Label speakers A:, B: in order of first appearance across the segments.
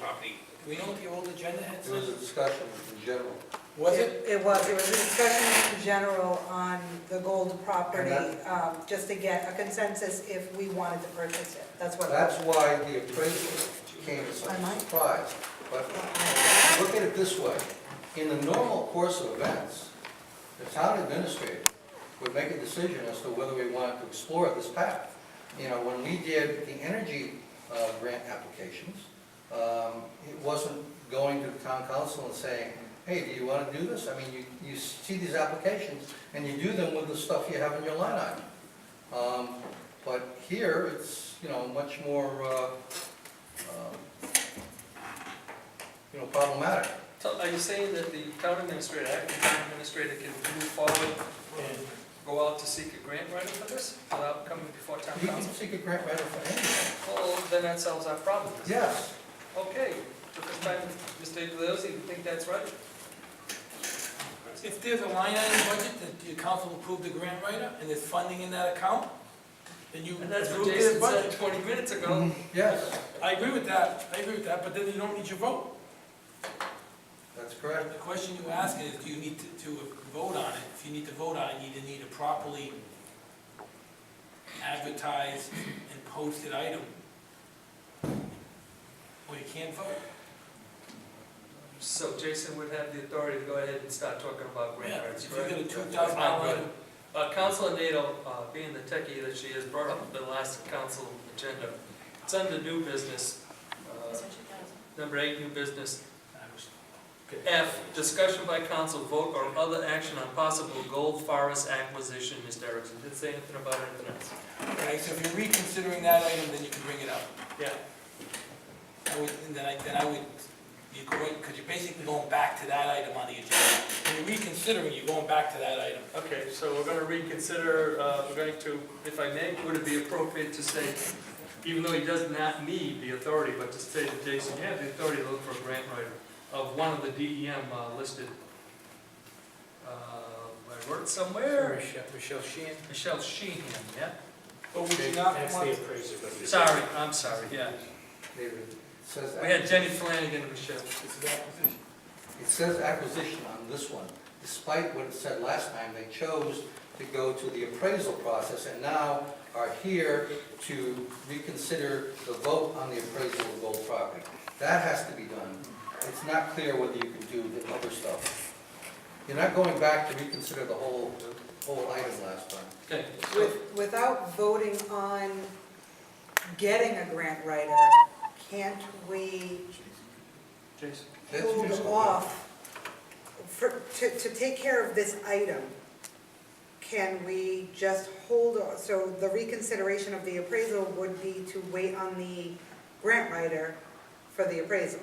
A: property.
B: Do we know what the old agenda had
C: It was a
B: said?
C: discussion in general.
B: Was it?
D: It was, it was a discussion in general on the gold property,
C: And
D: um, just to get a consensus if we wanted to purchase it. That's what.
C: That's why the appraisal came as
D: I
C: a
D: might.
C: surprise. But look at it this way, in the normal course of events, the town administrator would make a decision as to whether we wanted to explore this path. You know, when we did the energy uh, grant applications, um, it wasn't going to the town council and saying, hey, do you want to do this? I mean, you, you see these applications and you do them with the stuff you have in your line item. Um, But here, it's, you know, much more, uh, um, you know, problematic.
E: So Are you saying that the town administrator, acting town administrator can move forward and go out to seek a grant writer for this without coming before town
C: You can
E: council?
C: seek a grant writer for anything.
E: Well, then that solves our problem.
C: Yes,
E: Okay, took us time, Mr. Iglesias, you think that's right?
B: Mm-hmm. If there's a line item budget that the council approved the grant writer and there's funding in that account, then you
E: And that's what
B: approve their
E: Jason said
B: budget.
E: twenty minutes
B: Mm-hmm.
E: ago.
C: yes,
B: I agree with that, I agree with that, but then you don't need your vote.
C: that's
B: The
C: correct.
B: question you ask is, do you need to, to vote on it? If you need to vote on it, you either need a properly advertised and posted item. Or you can't vote.
E: So Jason would have the authority to go ahead and start talking about grant
B: Yeah,
E: writers,
B: if you get
E: correct?
B: a two thousand dollar item,
E: Uh, Councilor Nato, uh, being the techie that she is, brought up the last council agenda. It's under new business, uh, number eight, new business.
B: I was-
E: F, discussion by council vote or other action on possible gold forest acquisition, Mr. Erickson, didn't say anything about anything else.
B: Okay, so if you're reconsidering that item, then you can bring it up.
E: Yeah,
B: I would, and then I, then I would, you go, because you're basically going back to that item on the agenda. When you're reconsidering, you're going back to that item.
E: okay, so we're gonna reconsider, uh, we're going to, if I may, would it be appropriate to say, even though he does not need the authority, but to say to Jason, you have the authority to look for a grant writer of one of the DEM uh, listed, uh, I wrote somewhere,
F: Michelle, Michelle Sheehan?
E: Michelle Sheehan, yeah?
B: But would you not
F: That's
B: want,
F: the appraiser, but it's-
E: Sorry, I'm sorry, yeah.
C: David, it says,
E: We had Jenny Flanagan and Michelle.
B: this is acquisition.
C: it says acquisition on this one. Despite what it said last time, they chose to go to the appraisal process and now are here to reconsider the vote on the appraisal of gold property. That has to be done. It's not clear whether you can do the other stuff. You're not going back to reconsider the whole, the whole item last time.
E: Okay,
D: With- Without voting on getting a grant writer, can't we
E: Jason.
C: That's
D: hold
C: reasonable.
D: off for, to, to take care of this item? Can we just hold, o- so the reconsideration of the appraisal would be to wait on the grant writer for the appraisal?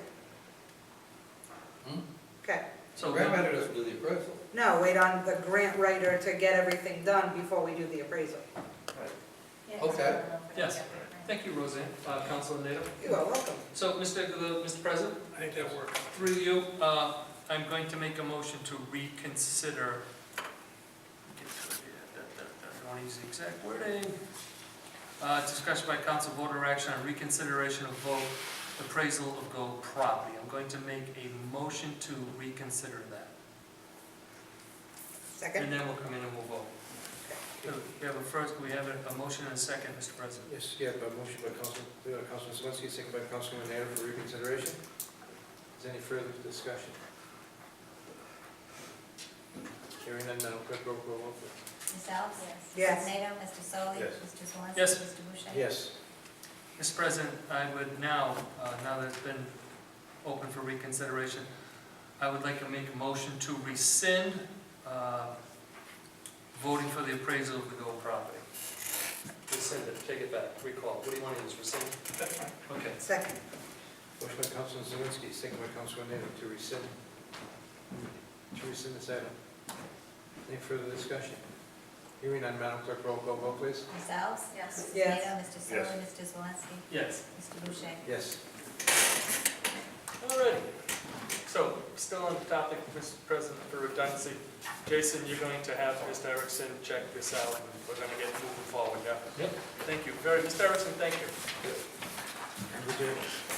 C: Hmm?
D: Okay,
E: So
C: Grant
E: then-
C: writer doesn't do the appraisal.
D: no, wait on the grant writer to get everything done before we do the appraisal.
C: Okay.
E: Yes. Thank you, Roseanne, uh, Councilor Nato.
D: You are welcome.
E: So, Mr. Glu- Mr. President,
B: I think that works.
E: through you, uh, I'm going to make a motion to reconsider. I don't use the exact wording. Uh, Discussion by council vote or action on reconsideration of vote appraisal of gold property. I'm going to make a motion to reconsider that.
D: Second?
E: And then we'll come in and we'll vote. So We have a first, we have a a motion and a second, Mr. President.
F: Yes, yeah, but motion by Council, uh, Councilman Zelinski, second by Councilman Nato for reconsideration. Is there any further discussion? Hearing none, Madam Clerk, roll call vote. please.
G: Ms. Alves?
D: Yes.
G: Mr. Nato? Mr. Solly?
F: Yes.
G: Mr. Zalinski?
E: Yes.
G: Mr. Boucher?
F: Yes.
E: Mr. President, I would now, uh, now that it's been open for reconsideration, I would like to make a motion to rescind uh, voting for the appraisal of the gold property. Rescind it, take it back, recall. What do you want to use, rescind? Okay.
D: Second.
F: Motion by Councilman Zelinski, second by Councilman Nato to rescind, to rescind this item. Any further discussion? Hearing none, Madam Clerk, roll call vote, please.
G: Ms. Alves? Yes. Mr.
D: Yes.
G: Nato? Mr. Solly? Mr. Zalinski?
E: Yes.
G: Mr. Boucher?
F: Yes.
E: All right. So, still on the topic, Mr. President, for redundancy, Jason, you're going to have Mr. Erickson check this out, and we're going to get moving forward, yeah? Yep. Thank you, very, Mr. Erickson, thank you.
F: Would you-